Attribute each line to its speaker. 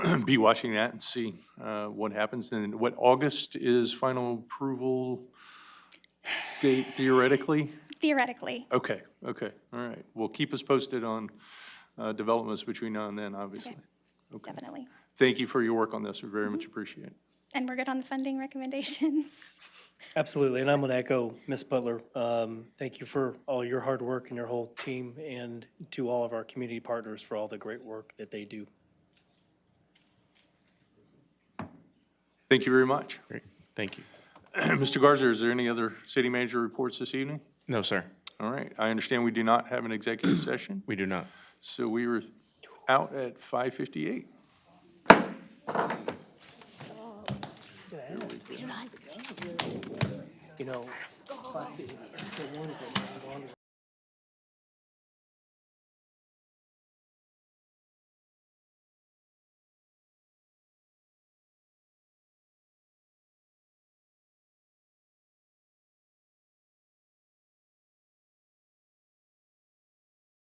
Speaker 1: be watching that and see uh, what happens. And what, August is final approval date theoretically?
Speaker 2: Theoretically,
Speaker 1: Okay, okay, all right. Well, keep us posted on uh, developments between now and then, obviously.
Speaker 2: definitely.
Speaker 1: Thank you for your work on this, we very much appreciate it.
Speaker 2: And we're good on the funding recommendations.
Speaker 3: Absolutely, and I'm going to echo Ms. Butler. Um, Thank you for all your hard work and your whole team, and to all of our community partners for all the great work that they do.
Speaker 1: Thank you very much.
Speaker 4: Great, thank you.
Speaker 1: Mr. Garza, is there any other city manager reports this evening?
Speaker 4: No, sir,
Speaker 1: All right, I understand we do not have an executive session,
Speaker 4: we do not.
Speaker 1: so we were out at 5:58.
Speaker 3: You know,